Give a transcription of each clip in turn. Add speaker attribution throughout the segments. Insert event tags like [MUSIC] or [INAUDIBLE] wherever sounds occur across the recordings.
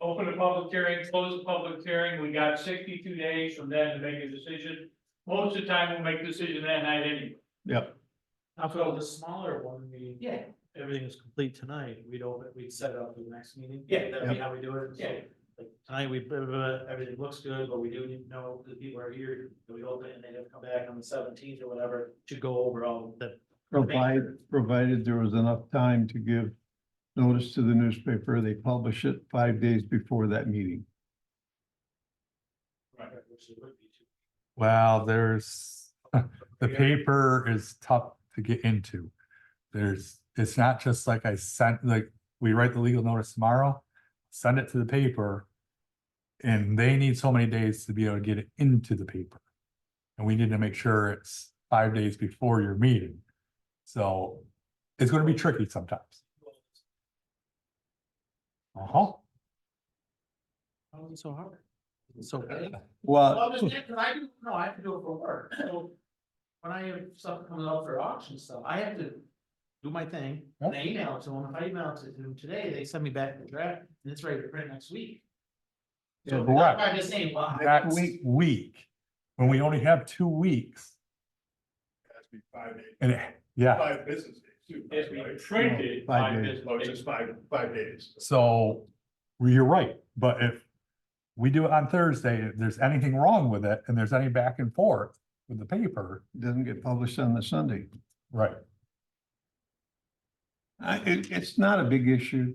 Speaker 1: open the public hearing, close the public hearing, we got sixty-two days from then to make a decision. Most of the time, we'll make a decision that night anyway.
Speaker 2: Yep.
Speaker 3: Now, for the smaller one, we,
Speaker 1: Yeah.
Speaker 3: everything is complete tonight, we'd open, we'd set it up for the next meeting.
Speaker 1: Yeah.
Speaker 3: That'd be how we do it. So,
Speaker 1: Yeah.
Speaker 3: Like, tonight, we, blah, blah, blah, everything looks good, but we do need to know the people are here, that we open it, and they have to come back on the seventeenth or whatever to go over all the.
Speaker 2: Provided, provided there was enough time to give notice to the newspaper, they publish it five days before that meeting.
Speaker 3: Right, which it would be too.
Speaker 4: Well, there's, [LAUGHS] the
Speaker 3: Yeah.
Speaker 4: paper is tough to get into. There's, it's not just like I sent, like, we write the legal notice tomorrow, send it to the paper. And they need so many days to be able to get it into the paper. And we need to make sure it's five days before your meeting. So it's gonna be tricky sometimes. Uh-huh.
Speaker 3: How is it so hard? It's so.
Speaker 2: Well,
Speaker 4: Uh,
Speaker 3: Well, I'm just saying, 'cause I do, no, I have to do it for work, so. When I have stuff coming up for auction stuff, I have to do my thing, and I email it to them, if I email it to them today, they send me back the draft, and it's ready to print next week. So
Speaker 4: Yeah,
Speaker 3: that's
Speaker 4: but
Speaker 3: why
Speaker 4: what-
Speaker 3: I'm just saying, wow.
Speaker 4: That week, when we only have two weeks
Speaker 5: has to be five days,
Speaker 4: and, it- yeah.
Speaker 5: five business days too.
Speaker 1: It's
Speaker 5: right?
Speaker 1: been printed
Speaker 2: Five
Speaker 1: by
Speaker 2: days.
Speaker 1: this.
Speaker 5: Oh, it's just five, five days.
Speaker 4: So you're right, but if we do it on Thursday, if there's anything wrong with it and there's any back and forth with the paper,
Speaker 2: it doesn't get published on the Sunday.
Speaker 4: right?
Speaker 2: I, it, it's not a big issue.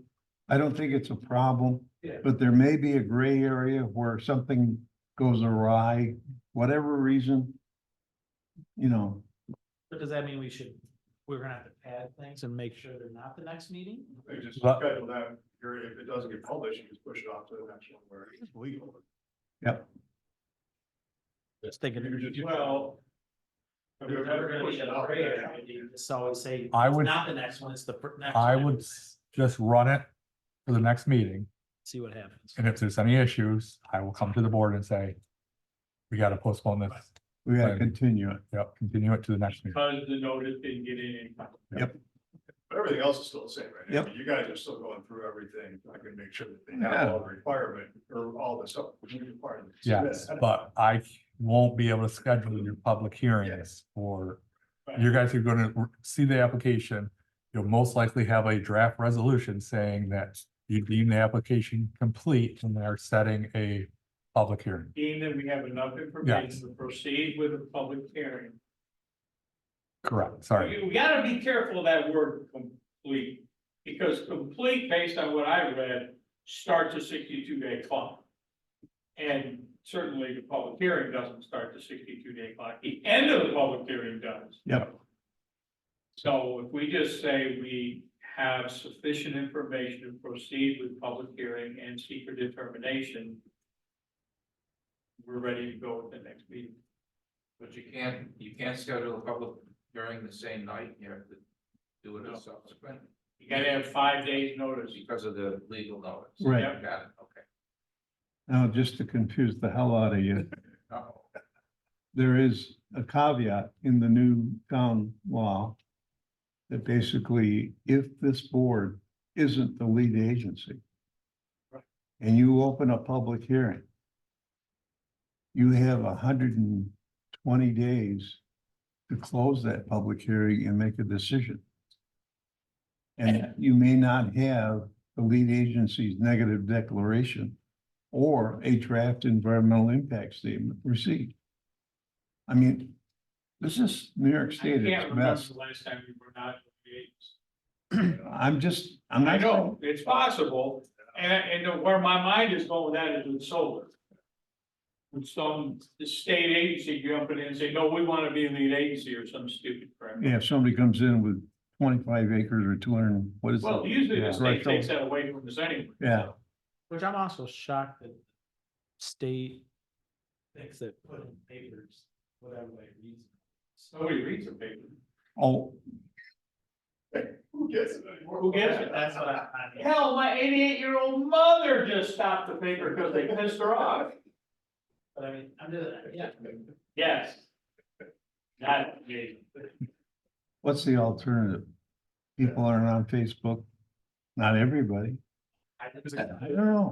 Speaker 2: I don't think it's a problem.
Speaker 3: Yeah.
Speaker 2: But there may be a gray area where something goes awry, whatever reason. You know,
Speaker 3: [LAUGHS] But does that mean we should, we're gonna have to add things and make sure they're not the next meeting?
Speaker 5: They just
Speaker 4: But-
Speaker 5: schedule that, or if it doesn't get published, you just push it off to the next one where it's legal.
Speaker 3: Just thinking.
Speaker 5: You just-
Speaker 1: Well.
Speaker 5: If
Speaker 1: There's
Speaker 5: you're
Speaker 1: never
Speaker 5: gonna
Speaker 1: gonna
Speaker 5: push
Speaker 1: be
Speaker 5: it
Speaker 1: a
Speaker 5: off
Speaker 1: gray
Speaker 5: there,
Speaker 1: area.
Speaker 5: you
Speaker 3: Just always say,
Speaker 4: I
Speaker 3: it's
Speaker 4: would-
Speaker 3: not the next one, it's the fir- next.
Speaker 4: I
Speaker 3: one.
Speaker 4: would s- just run it for the next meeting.
Speaker 3: See what happens.
Speaker 4: And if there's any issues, I will come to the board and say, we gotta postpone this,
Speaker 2: we gotta
Speaker 4: Right.
Speaker 2: continue it.
Speaker 4: yep, continue it to the next meeting.
Speaker 1: Because the notice didn't get in in time.
Speaker 5: But everything else is still the same, right? I
Speaker 2: Yep.
Speaker 5: mean, You guys are still going through everything. I can make sure that they
Speaker 2: Yeah.
Speaker 5: have all the requirement or all the stuff. we require them to
Speaker 4: Yes, [LAUGHS]
Speaker 5: submit.
Speaker 4: but I won't be able to schedule your public hearings for, you guys are gonna see the application. You'll most likely have a draft resolution saying that you deem the application complete and they're setting a public hearing.
Speaker 1: Being that we have enough information to proceed with a public hearing.
Speaker 4: Correct, sorry.
Speaker 1: You you gotta be careful of that word complete, because complete, based on what I read, starts a sixty-two day clock. And certainly the public hearing doesn't start the sixty-two day clock, the end of the public hearing does.
Speaker 2: Yep.
Speaker 1: So if we just say we have sufficient information to proceed with public hearing and secret determination. We're ready to go at the next meeting.
Speaker 6: But you can't, you can't schedule a public hearing the same night, you have to do it as subsequent
Speaker 1: You gotta have five days notice.
Speaker 6: because of the legal notice.
Speaker 2: Right.
Speaker 6: Got it, okay.
Speaker 2: Now, just to confuse the hell out of you,
Speaker 6: No,
Speaker 2: there is a caveat in the new town law that basically, if this board isn't the lead agency and you open a public hearing, you have hundred and twenty days to close that public hearing and make a decision. And you may not have the lead agency's negative declaration or a draft environmental impact statement received. I mean, this is New York
Speaker 1: I can't
Speaker 2: State at its
Speaker 1: remember
Speaker 2: best.
Speaker 1: the last time we were not. engaged.
Speaker 2: I'm just, I'm
Speaker 1: I
Speaker 2: not.
Speaker 1: know, it's possible, and, and where my mind is going with that is with solar. When some, the state agency jumping in and say, no, we wanna be a lead agency or some stupid crap.
Speaker 2: Yeah, if somebody comes in with twenty-five acres or two hundred, and- what is
Speaker 1: Well,
Speaker 2: it?
Speaker 1: usually
Speaker 2: Yeah.
Speaker 1: the state
Speaker 2: Right, so-
Speaker 1: takes that away from us anyway.
Speaker 2: Yeah.
Speaker 3: Which I'm also shocked that state thinks that put in papers, whatever they read.
Speaker 1: Nobody reads the paper.
Speaker 2: Oh,
Speaker 5: Who gets it anymore?
Speaker 1: Who gets it?
Speaker 3: That's what I, I mean.
Speaker 1: Hell, my eighty-eight-year-old mother just stopped the paper because they pissed her off.
Speaker 3: but I mean, I'm just, yeah,
Speaker 1: Yes. Not me.
Speaker 2: what's the alternative? People aren't on Facebook, not everybody.
Speaker 3: I
Speaker 2: I
Speaker 3: just.
Speaker 2: don't know.